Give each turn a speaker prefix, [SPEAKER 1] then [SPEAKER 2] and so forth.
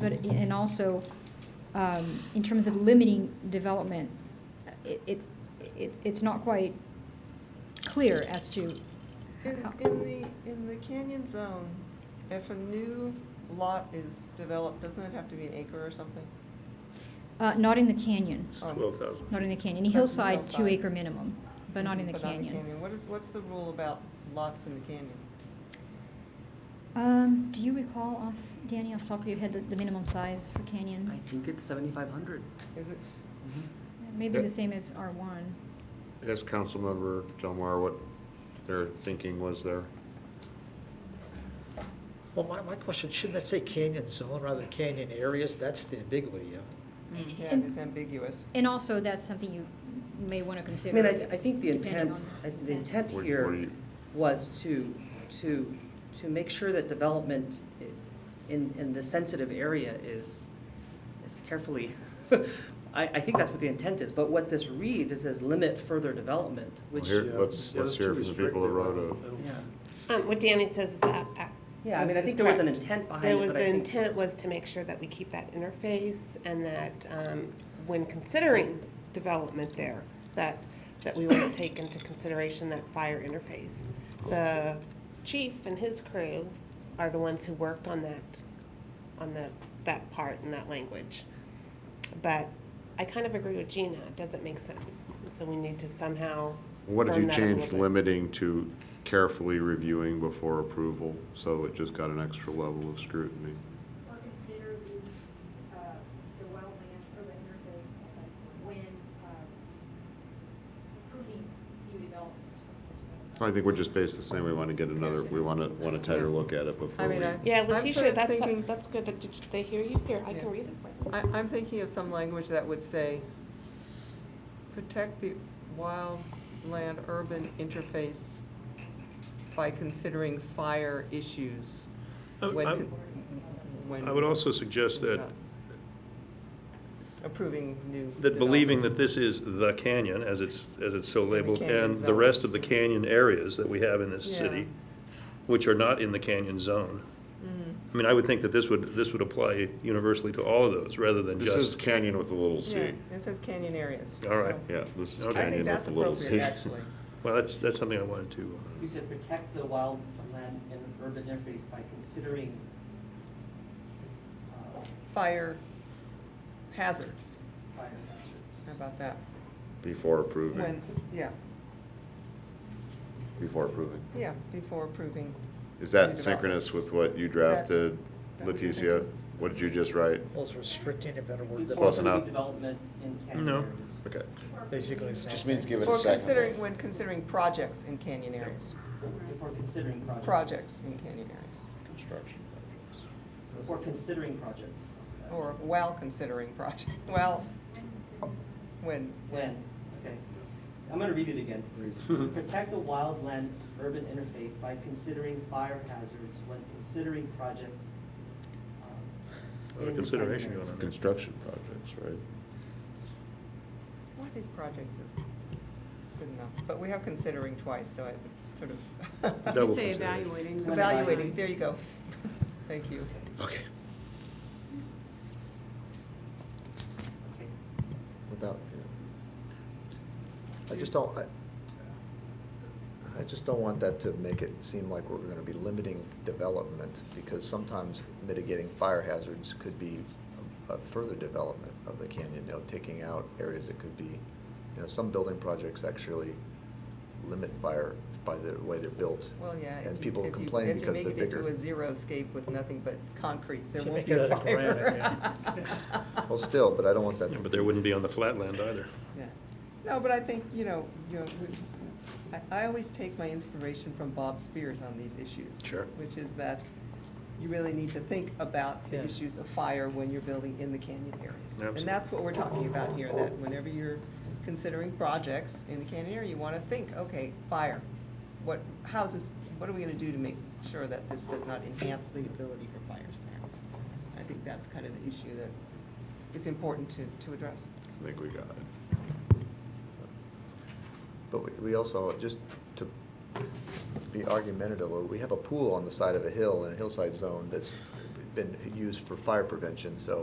[SPEAKER 1] but, and also, um, in terms of limiting development, it, it, it- it's not quite clear as to
[SPEAKER 2] In,
[SPEAKER 1] how-
[SPEAKER 2] in the, in the canyon zone, if a new lot is developed, doesn't it have to be an acre or something?
[SPEAKER 1] Uh, not in the canyon,
[SPEAKER 2] Oh.
[SPEAKER 3] Twelve thousand.
[SPEAKER 1] not in the canyon, in
[SPEAKER 2] That's
[SPEAKER 1] hillside,
[SPEAKER 2] hillside.
[SPEAKER 1] two acre minimum, but not in the
[SPEAKER 2] But not in the
[SPEAKER 1] canyon.
[SPEAKER 2] canyon. What is, what's the rule about lots in the canyon?
[SPEAKER 1] Um, do you recall off, Danny, off the top of your head, the, the minimum size for
[SPEAKER 4] I
[SPEAKER 1] canyon?
[SPEAKER 4] think it's seventy-five hundred.
[SPEAKER 2] Is it,
[SPEAKER 1] Maybe
[SPEAKER 5] Yeah.
[SPEAKER 1] the same as R one.
[SPEAKER 5] Ask Councilmember Delmar what their thinking was there.
[SPEAKER 6] Well, my, my question, shouldn't that say canyon zone rather than canyon areas? That's the ambiguity of it.
[SPEAKER 2] yeah, it is ambiguous.
[SPEAKER 1] And also, that's something you may want to
[SPEAKER 4] I
[SPEAKER 1] consider.
[SPEAKER 4] mean, I, I think the
[SPEAKER 1] depending
[SPEAKER 4] intent,
[SPEAKER 1] on-
[SPEAKER 4] I think the intent
[SPEAKER 5] What- what do
[SPEAKER 4] here
[SPEAKER 5] you-
[SPEAKER 4] was to, to, to make sure that development i- in, in the sensitive area is, is carefully, I, I think that's what the intent is, but what this reads, is says limit further development,
[SPEAKER 5] Well,
[SPEAKER 4] which,
[SPEAKER 5] here, let's,
[SPEAKER 3] Yeah,
[SPEAKER 5] let's
[SPEAKER 3] that's
[SPEAKER 5] hear
[SPEAKER 3] too
[SPEAKER 5] from the people that wrote
[SPEAKER 3] restrictive. I
[SPEAKER 5] a,
[SPEAKER 3] don't- I don't-
[SPEAKER 4] yeah.
[SPEAKER 7] Um, What Danny says is. uh, uh,
[SPEAKER 4] Yeah, I mean, I
[SPEAKER 7] is-
[SPEAKER 4] think
[SPEAKER 7] is
[SPEAKER 4] there was an
[SPEAKER 7] correct.
[SPEAKER 4] intent behind
[SPEAKER 7] There
[SPEAKER 4] it,
[SPEAKER 7] was-
[SPEAKER 4] but I
[SPEAKER 7] The
[SPEAKER 4] think-
[SPEAKER 7] intent was to make sure that we keep that interface and that um, when considering development there, that, that we would take into consideration that fire interface. The chief and his crew are the ones who worked on that, on the, that part and that language. But I kind of agree with Gina, it doesn't make sense. So we need to somehow.
[SPEAKER 5] what if
[SPEAKER 7] firm
[SPEAKER 5] you
[SPEAKER 7] that up a little
[SPEAKER 5] changed
[SPEAKER 7] bit.
[SPEAKER 5] limiting to carefully reviewing before approval? So it just got an extra level of scrutiny.
[SPEAKER 8] or consider the, uh, the wetland or the interface when, uh, approving new development or something. like that.
[SPEAKER 5] I think we're just basically saying we want to get another, we want to, want a tighter look at it
[SPEAKER 2] I
[SPEAKER 5] before we.
[SPEAKER 2] mean, I-
[SPEAKER 7] Yeah,
[SPEAKER 2] I'm sort
[SPEAKER 7] Letitia,
[SPEAKER 2] of
[SPEAKER 7] that's,
[SPEAKER 2] thinking-
[SPEAKER 7] that's good. Did you- they hear you here? I
[SPEAKER 2] Yeah.
[SPEAKER 7] can read it. for you.
[SPEAKER 2] I, I'm thinking of some language that would say, protect the wildland urban interface by considering fire issues.
[SPEAKER 3] I'm-
[SPEAKER 2] when
[SPEAKER 3] I'm-
[SPEAKER 2] con- when
[SPEAKER 3] I would also suggest that,
[SPEAKER 2] Approving new.
[SPEAKER 3] that believing that
[SPEAKER 2] development.
[SPEAKER 3] this is the canyon, as it's, as it's so labeled,
[SPEAKER 2] canyon
[SPEAKER 3] and the
[SPEAKER 2] zone.
[SPEAKER 3] rest of the canyon areas that we have in this
[SPEAKER 2] Yeah.
[SPEAKER 3] city, which are not in the canyon zone.
[SPEAKER 2] Mm-hmm.
[SPEAKER 3] I mean, I would think that this would, this would apply universally to all of those, rather than
[SPEAKER 5] This is
[SPEAKER 3] just,
[SPEAKER 5] canyon with a little c.
[SPEAKER 2] Yeah, it says canyon areas.
[SPEAKER 3] All right.
[SPEAKER 2] so
[SPEAKER 5] Yeah, this is
[SPEAKER 3] Okay.
[SPEAKER 2] I
[SPEAKER 5] canyon
[SPEAKER 2] think that's
[SPEAKER 5] with a little c.
[SPEAKER 2] appropriate, actually.
[SPEAKER 3] well, that's, that's something I wanted to. uh,
[SPEAKER 9] You said protect the wildland and urban interface by considering, uh,
[SPEAKER 2] Fire hazards,
[SPEAKER 9] fire hazards.
[SPEAKER 2] how about that?
[SPEAKER 5] Before approving,
[SPEAKER 2] When, yeah,
[SPEAKER 5] before approving.
[SPEAKER 2] yeah, before approving.
[SPEAKER 5] Is
[SPEAKER 2] Redevelopment.
[SPEAKER 5] that synchronous with what you drafted,
[SPEAKER 2] that what you're
[SPEAKER 5] Leticia?
[SPEAKER 2] thinking?
[SPEAKER 5] What did you just write?
[SPEAKER 6] Well, it's restricting a better word than.
[SPEAKER 5] Close
[SPEAKER 9] Before
[SPEAKER 5] enough.
[SPEAKER 9] Development in canyon
[SPEAKER 3] No.
[SPEAKER 9] areas.
[SPEAKER 5] Okay.
[SPEAKER 6] Basically the same.
[SPEAKER 5] Just means
[SPEAKER 6] thing.
[SPEAKER 5] give it a
[SPEAKER 2] Or
[SPEAKER 5] second.
[SPEAKER 2] considering, when considering projects in canyon areas,
[SPEAKER 9] Before considering projects.
[SPEAKER 2] projects in canyon areas,
[SPEAKER 5] Construction projects.
[SPEAKER 9] Before considering projects. How's that?
[SPEAKER 2] or while considering project, well, when,
[SPEAKER 9] When, okay. I'm gonna read it again. Protect the wildland urban interface by considering fire hazards when considering projects. um,
[SPEAKER 3] Other
[SPEAKER 9] in canyon
[SPEAKER 3] consideration going
[SPEAKER 9] areas.
[SPEAKER 3] on.
[SPEAKER 5] Construction projects, right?
[SPEAKER 2] I think projects is good enough, but we have considering twice, so I would sort of.
[SPEAKER 3] Double
[SPEAKER 10] say
[SPEAKER 3] consider.
[SPEAKER 10] evaluating. the
[SPEAKER 2] Evaluating,
[SPEAKER 10] design.
[SPEAKER 2] there you go. Thank you.
[SPEAKER 5] Okay.
[SPEAKER 9] Okay.
[SPEAKER 6] Without, you know. I just don't, I, I just don't want that to make it seem like we're gonna be limiting development, because sometimes mitigating fire hazards could be a further development of the canyon, you know, taking out areas that could be, you know, some building projects actually limit fire by the way they're built.
[SPEAKER 2] Well, yeah. if
[SPEAKER 6] And
[SPEAKER 2] you-
[SPEAKER 6] people
[SPEAKER 2] if you-
[SPEAKER 6] complain because
[SPEAKER 2] If
[SPEAKER 6] they're
[SPEAKER 2] you make it
[SPEAKER 6] bigger.
[SPEAKER 2] into a xeriscape with nothing but concrete, there
[SPEAKER 6] Should
[SPEAKER 2] won't
[SPEAKER 6] make
[SPEAKER 2] be
[SPEAKER 6] it
[SPEAKER 2] a
[SPEAKER 6] out of granite,
[SPEAKER 2] fire.
[SPEAKER 6] yeah. Well, still, but I don't want that
[SPEAKER 3] Yeah,
[SPEAKER 6] to
[SPEAKER 3] But there wouldn't be on the flatland either.
[SPEAKER 2] Yeah. No, but I think, you know, you know, we- I, I always take my inspiration from Bob Spears on these issues.
[SPEAKER 3] Sure.
[SPEAKER 2] Which is that you really need to think about the
[SPEAKER 3] Yeah.
[SPEAKER 2] issues of fire when you're building in the canyon areas.
[SPEAKER 3] Absolutely.
[SPEAKER 2] And that's what we're talking about here, that whenever you're considering projects in the canyon area, you want to think, okay, fire. What, how's this, what are we going to do to make sure that this does not enhance the ability for fires to happen? I think that's kind of the issue that is important to, to address.
[SPEAKER 5] I think we got it.
[SPEAKER 6] But we- we also, just to be argumentative, we have a pool on the side of a hill in a hillside zone that's been used for fire prevention, so